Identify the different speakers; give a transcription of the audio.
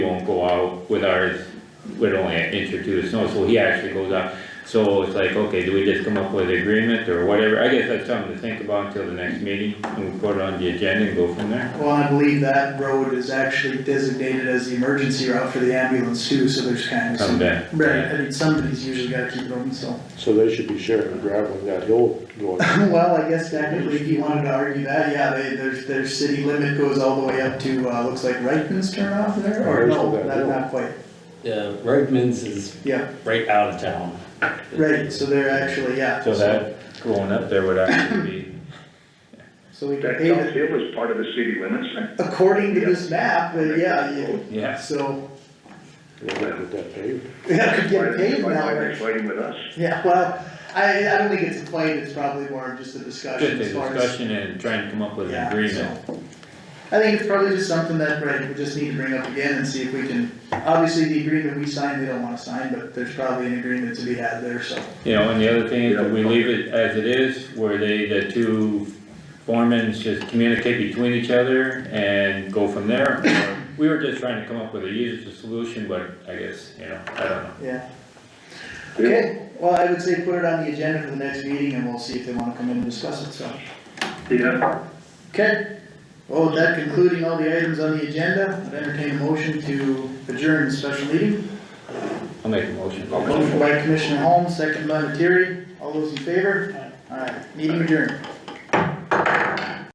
Speaker 1: He won't go out with ours with only an inch or two of snow, so he actually goes out. So it's like, okay, do we just come up with an agreement or whatever? I guess that's something to think about until the next meeting, and we put it on the agenda and go from there.
Speaker 2: Well, I believe that road is actually designated as the emergency route for the ambulance too, so there's kind of
Speaker 1: Come
Speaker 2: some.
Speaker 1: back.
Speaker 2: Right, I mean, somebody's usually gotta keep going, so.
Speaker 3: So they should be sharing the gravel and that hill going.
Speaker 2: Well, I guess technically, if you wanted to argue that, yeah, they, their, their city limit goes all the way up to, uh, looks like Reitman's turnoff there, or
Speaker 3: Where's
Speaker 2: no,
Speaker 3: that
Speaker 2: not,
Speaker 3: hill?
Speaker 2: not quite.
Speaker 4: Yeah, Redmond's is
Speaker 2: Yeah,
Speaker 4: right out of town.
Speaker 2: right, so they're actually, yeah.
Speaker 1: So that going up there would actually be,
Speaker 2: So we can
Speaker 5: That
Speaker 2: pave
Speaker 5: South
Speaker 2: it,
Speaker 5: Hill is part of the city limits, right?
Speaker 2: according to this map, but yeah, you-
Speaker 1: yeah,
Speaker 2: so,
Speaker 3: They'll get that paved.
Speaker 2: yeah, could
Speaker 5: Why
Speaker 2: get
Speaker 5: they-
Speaker 2: paved
Speaker 5: why-
Speaker 2: now,
Speaker 5: Why they're
Speaker 2: right?
Speaker 5: fighting with us?
Speaker 2: Yeah, well, I, I don't think it's a fight, it's probably more just a discussion
Speaker 1: just a
Speaker 2: as far as.
Speaker 1: discussion and trying to come up with an
Speaker 2: Yeah,
Speaker 1: agreement.
Speaker 2: so, I think it's probably just something that, right, we just need to bring up again and see if we can, obviously the agreement we signed, they don't wanna sign, but there's probably an agreement to be had there, so.
Speaker 1: You know, and the other thing is that we leave it as it is, where they, the two foremans just communicate between each other and go from there. Or We were just trying to come up with a user solution, but I guess, you know, I don't know.
Speaker 2: Yeah. Okay, well, I would say put it on the agenda for the next meeting and we'll see if they wanna come in and discuss it, so.
Speaker 5: Yeah,
Speaker 2: Okay, well, with that concluding all the items on the agenda, I'd entertain a motion to adjourn the special meeting.
Speaker 1: I'll make a motion.
Speaker 2: Motion by Commissioner Holmes, second by Materi, all those in favor? Alright, meeting adjourned.